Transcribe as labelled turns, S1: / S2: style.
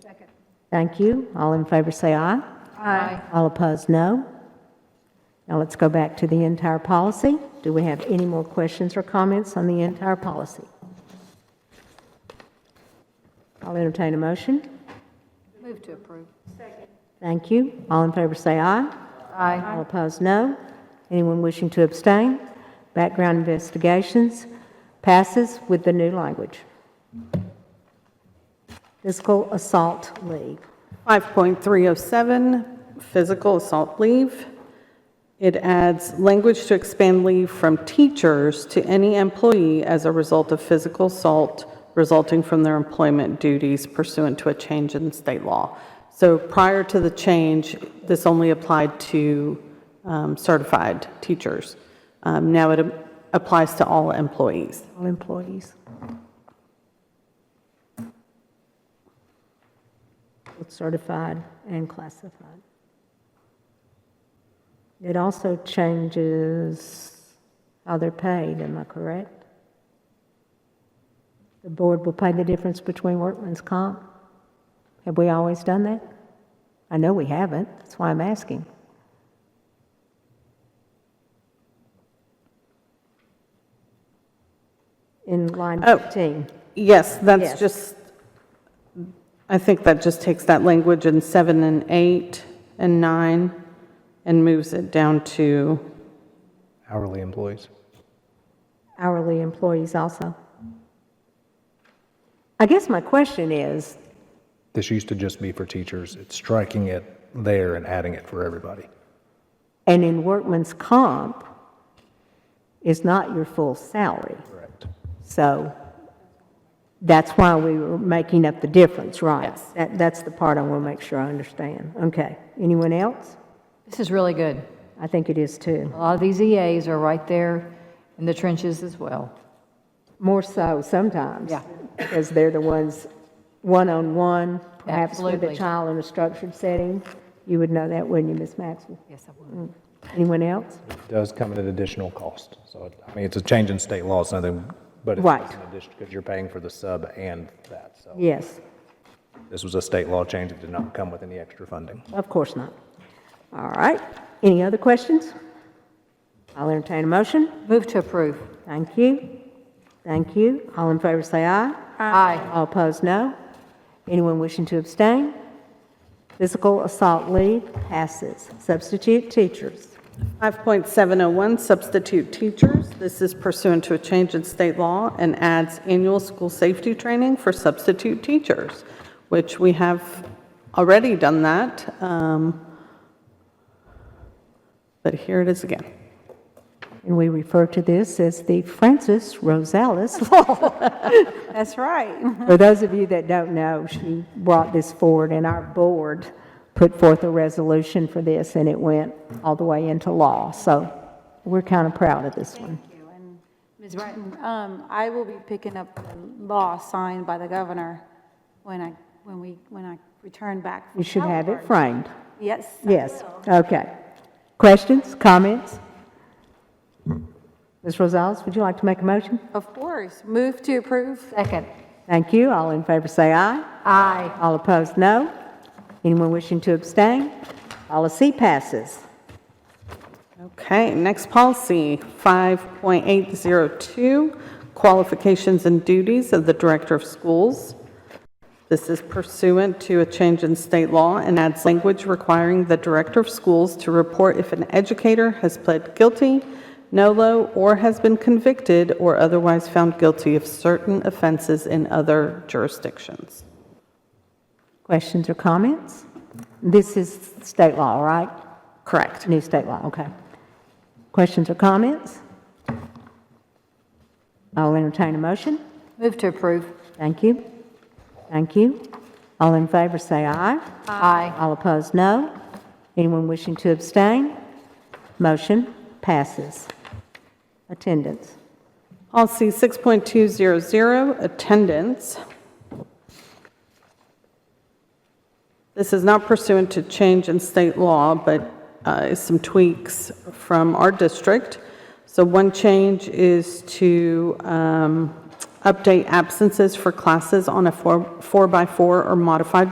S1: Second.
S2: Thank you. All in favor say aye.
S1: Aye.
S2: All opposed, no. Now let's go back to the entire policy. Do we have any more questions or comments on the entire policy? I'll entertain a motion.
S1: Move to approve.
S2: Thank you. All in favor say aye.
S1: Aye.
S2: All opposed, no. Anyone wishing to abstain? Background investigations passes with the new language. Physical assault league.
S3: 5.307, physical assault leave. It adds language to expand leave from teachers to any employee as a result of physical assault resulting from their employment duties pursuant to a change in state law. So prior to the change, this only applied to um, certified teachers. Um, Now it applies to all employees.
S2: All employees. Both certified and classified. It also changes how they're paid, am I correct? The board will pay the difference between workman's comp? Have we always done that? I know we haven't, that's why I'm asking. In line
S3: Oh.
S2: 15. Yes.
S3: Yes, that's just, I think that just takes that language in seven and eight and nine and moves it down to,
S4: hourly employees.
S2: hourly employees also. I guess my question is,
S4: This used to just be for teachers. It's striking it there and adding it for everybody.
S2: and in workman's comp is not your full salary,
S4: Correct.
S2: so that's why we were making up the difference, right? That, that's the part I want to make sure I understand. Okay, anyone else?
S1: This is really good.
S2: I think it is too.
S1: A lot of these EAs are right there in the trenches as well.
S2: More so sometimes.
S1: Yeah.
S2: Because they're the ones, one-on-one, perhaps with a
S1: Absolutely.
S2: child in a structured setting. You would know that, wouldn't you, Ms. Maxwell?
S1: Yes, I would.
S2: Anyone else?
S4: It does come at an additional cost. So, it- I mean, it's a change in state law, it's nothing, but it's
S2: Right.
S4: just an addition, because you're paying for the sub and that. So
S2: Yes.
S4: this was a state law change. It did not come with any extra funding.
S2: Of course not. All right. Any other questions? I'll entertain a motion.
S1: Move to approve.
S2: Thank you. Thank you. All in favor say aye.
S1: Aye.
S2: All opposed, no. Anyone wishing to abstain? Physical assault leave passes. Substitute teachers.
S3: 5.701 substitute teachers. This is pursuant to a change in state law and adds annual school safety training for substitute teachers, which we have already done that. um, But here it is again.
S2: And we refer to this as the Francis Rosales
S3: That's right.
S2: For those of you that don't know, she brought this forward, and our board put forth a resolution for this, and it went all the way into law. So we're kind of proud of this one.
S5: Thank you. And Ms. Bratton, um, I will be picking up the law signed by the governor when I, when we, when I return back. from
S2: You should have it
S5: Halliburton.
S2: framed.
S5: Yes. I
S2: Yes,
S5: will.
S2: okay. Questions, comments? Ms. Rosales, would you like to make a motion?
S5: Of course. Move to approve.
S1: Second.
S2: Thank you. All in favor say aye.
S1: Aye.
S2: All opposed, no. Anyone wishing to abstain? Policy passes.
S3: Okay, next policy, 5.802, qualifications and duties of the director of schools. This is pursuant to a change in state law and adds language requiring the director of schools to report if an educator has pled guilty, nolo, or has been convicted or otherwise found guilty of certain offenses in other jurisdictions.
S2: Questions or comments? This is state law, right? Correct. New state law, okay. Questions or comments? I'll entertain a motion.
S1: Move to approve.
S2: Thank you. Thank you. All in favor, say aye.
S1: Aye.
S2: All opposed, no. Anyone wishing to abstain? Motion passes. Attendance.
S3: Policy 6.200, attendance. This is not pursuant to change in state law, but uh, is some tweaks from our district. So one change is to um, update absences for classes on a four- four-by-four or modified